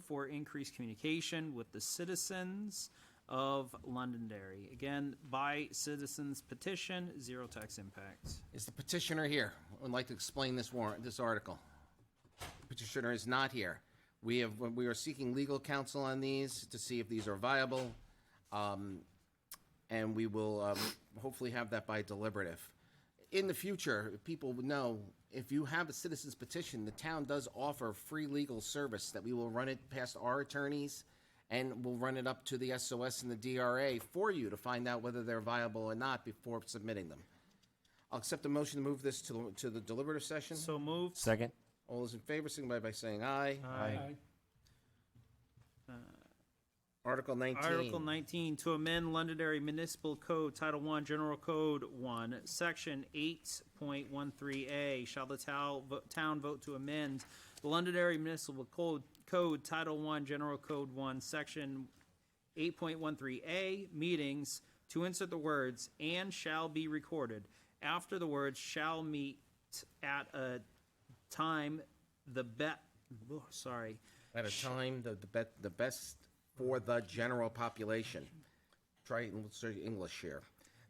for increased communication with the citizens of Londonderry. Again, by citizens petition, zero tax impact. Is the petitioner here? Would like to explain this warrant, this article. Petitioner is not here. We have, we are seeking legal counsel on these to see if these are viable. Um, And we will um, hopefully have that by deliberative. In the future, if people would know, if you have a citizen's petition, the town does offer free legal service that we will run it past our attorneys and we'll run it up to the SOS and the DRA for you to find out whether they're viable or not before submitting them. I'll accept the motion to move this to, the- to the deliberative session. So moved. Second. All those in favor, signify by saying aye. Uh, Aye. Article Article 19. nineteen, to amend Londonderry Municipal Code, Title One, General Code One, Section eight point one three A. Shall the town, town vote to amend the Londonderry Municipal Code, Code, Title One, General Code One, Section eight point one three A, meetings, to insert the words, and shall be recorded. After the words, shall meet at a time, the bet, oh, sorry, At a time, the, the best, the best for the general population. Try and let's say English here.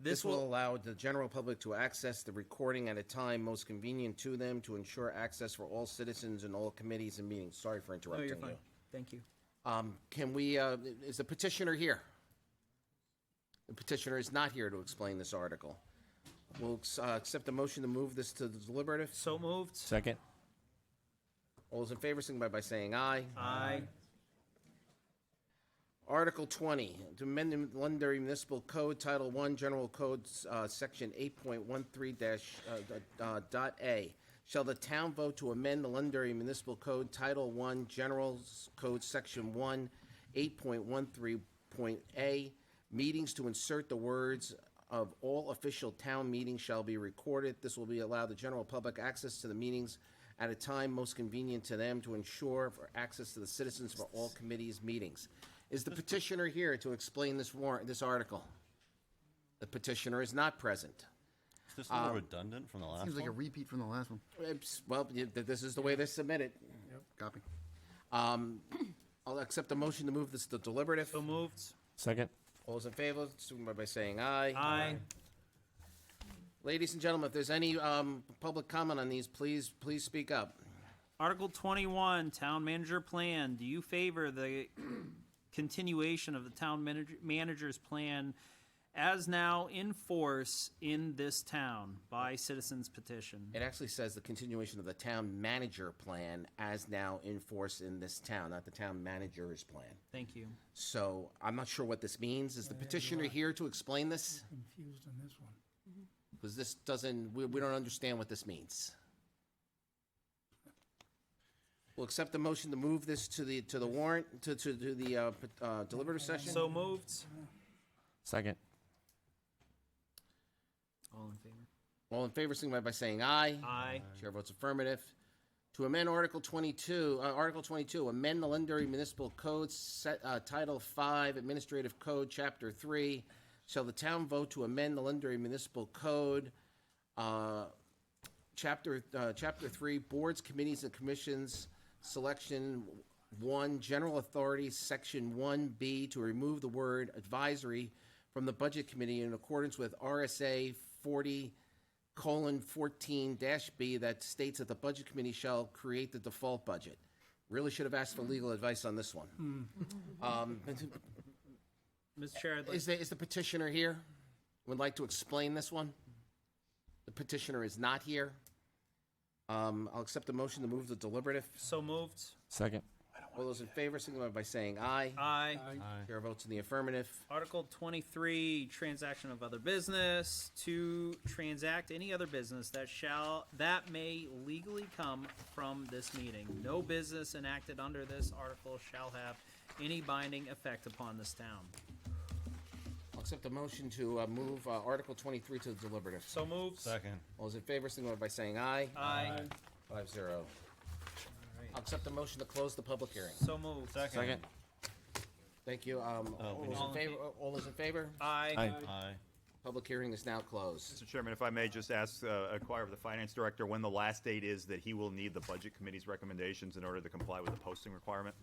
This will allow the general public to access the recording at a time most convenient to them to ensure access for all citizens in all committees and meetings. Sorry for oh, interrupting you're you. fine, thank you. Um, can we, uh, is the petitioner here? The petitioner is not here to explain this article. We'll, uh, accept the motion to move this to the deliberative. So moved. Second. All those in favor, signify by saying aye. Aye. Article 20, to amend the Londonderry Municipal Code, Title 1, General Code, uh, Section 8.13 dash, uh, uh, dot A. Shall the town vote to amend the Londonderry Municipal Code, Title 1, General Code, Section 1, 8.13.A, meetings to insert the words of all official town meetings shall be recorded. This will be allow the general public access to the meetings at a time most convenient to them to ensure for access to the citizens for all committees' meetings. Is the petitioner here to explain this warrant, this article? The petitioner is not present. Is this a little redundant from the last Uh, Seems like a one? repeat from the last one. Oops, Well, you- th- this is the way they submit it. Copy. Um, I'll accept the motion to move this to deliberative. So moved. Second. All those in favor, signify by saying aye. Aye. Ladies and gentlemen, if there's any um, public comment on these, please, please speak up. Article twenty-one, town manager plan. Do you favor the continuation of the town manager, manager's plan as now in force in this town by citizens petition? It actually says the continuation of the town manager plan as now in force in this town, not the town manager's plan. Thank you. So I'm not sure what this means. Is the petitioner here to explain this? confused on this one. Because this doesn't, we, we don't understand what this means. We'll accept the motion to move this to the, to the warrant, to, to, to the, uh, p- uh, deliberative session. So moved. Second. All in favor? All in favor, signify by saying aye. Aye. Chair votes affirmative. To amend Article 22, uh, Article 22, amend the Londonderry Municipal Code, Set- uh, Title 5, Administrative Code, Chapter 3. Shall the town vote to amend the Londonderry Municipal Code, uh, Chapter, uh, Chapter 3, Boards, Committees, and Commissions, Selection 1, General Authority, Section 1B, to remove the word advisory from the Budget Committee in accordance with RSA 40, colon fourteen dash B that states that the budget committee shall create the default budget. Really should have asked for legal advice on this one. Um, Mr. Chair, I'd like- Is the, is the petitioner here? Would like to explain this one? The petitioner is not here. Um, I'll accept the motion to move the deliberative. so moved. Second. All those in favor, signify by saying aye. Aye. Chair votes in the affirmative. Article twenty-three, transaction of other business, to transact any other business that shall, that may legally come from this meeting. No business enacted under this article shall have any binding effect upon this town. I'll accept the motion to, uh, move, uh, Article twenty-three to the deliberative. So moved. Second. All those in favor, signify by saying aye. Aye. Five zero. I'll accept the motion to close the public hearing. So moved. Second. Thank you. Um, all we those in need- favor, all those in favor? Aye. Aye. Aye. Public hearing is now closed. Mr. Chairman, if I may just ask, uh, inquire of the finance director when the last date is that he will need the budget committee's recommendations in order to comply with the posting requirement?